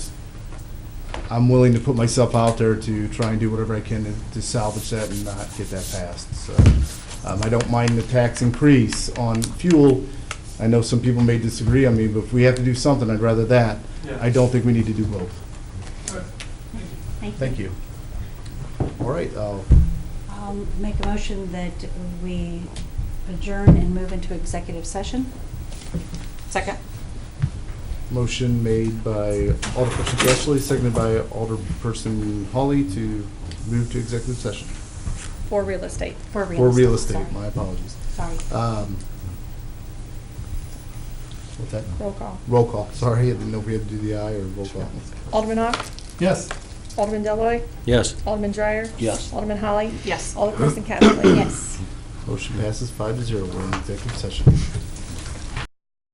I'm willing to put myself out there to try and do whatever I can to- to salvage that and not get that passed, so. Um, I don't mind the tax increase on fuel. I know some people may disagree on me, but if we have to do something, I'd rather that. I don't think we need to do both. Thank you. Thank you. All right, uh, I'll I'll make a motion that we adjourn and move into executive session. Second. Motion made by Alderperson Gressel, seconded by Alderperson Holly to move to executive session. For real estate. For real estate. For real estate, sorry. my apologies. Sorry. Um, What's that? Roll call. Roll call, sorry, I didn't know if we had to do the aye or roll call. Alderman Ock, Yes. Alderman Deloy, Yes. Alderman Dreyer. Yes. Alderman Holly. Yes. Alderperson Casterly. Yes. Motion passes five to zero, we're in executive session.